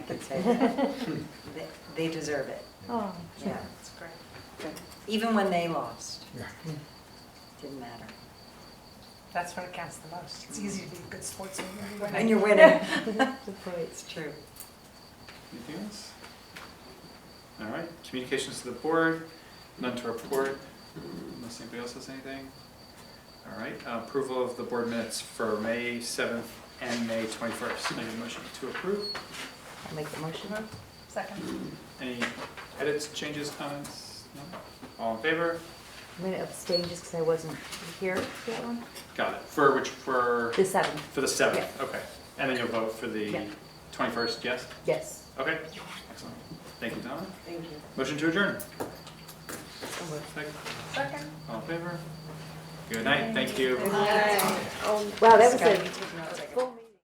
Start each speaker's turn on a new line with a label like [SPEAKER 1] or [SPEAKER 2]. [SPEAKER 1] would say that. They- They deserve it,
[SPEAKER 2] Oh,
[SPEAKER 1] yeah.
[SPEAKER 3] That's great.
[SPEAKER 1] Even when they lost,
[SPEAKER 4] Yeah.
[SPEAKER 1] didn't matter.
[SPEAKER 3] That's what counts the most. It's easy to be a good sportsman when
[SPEAKER 1] And
[SPEAKER 3] you're
[SPEAKER 1] you're winning.
[SPEAKER 2] good point.
[SPEAKER 1] It's true.
[SPEAKER 5] Anything else? All right, communications to the board, none to report, unless anybody else has anything. All right, uh, approval of the board minutes for May 7th and May 21st. Make a motion to approve.
[SPEAKER 2] I'll make the motion.
[SPEAKER 3] Second.
[SPEAKER 5] Any edits, changes, comments? No? All in favor?
[SPEAKER 2] I'm gonna abstain just because I wasn't here for that one.
[SPEAKER 5] Got it. For which, for,
[SPEAKER 2] The seven,
[SPEAKER 5] for the 7th, okay. And then you'll vote for the
[SPEAKER 2] Yeah.
[SPEAKER 5] 21st, yes?
[SPEAKER 2] yes.
[SPEAKER 5] Okay, excellent. Thank you, Donna.
[SPEAKER 1] Thank you.
[SPEAKER 5] Motion to adjourn.
[SPEAKER 3] Second.
[SPEAKER 5] All in favor? Good night, thank you.
[SPEAKER 2] Wow, that was a
[SPEAKER 3] Second.
[SPEAKER 2] full.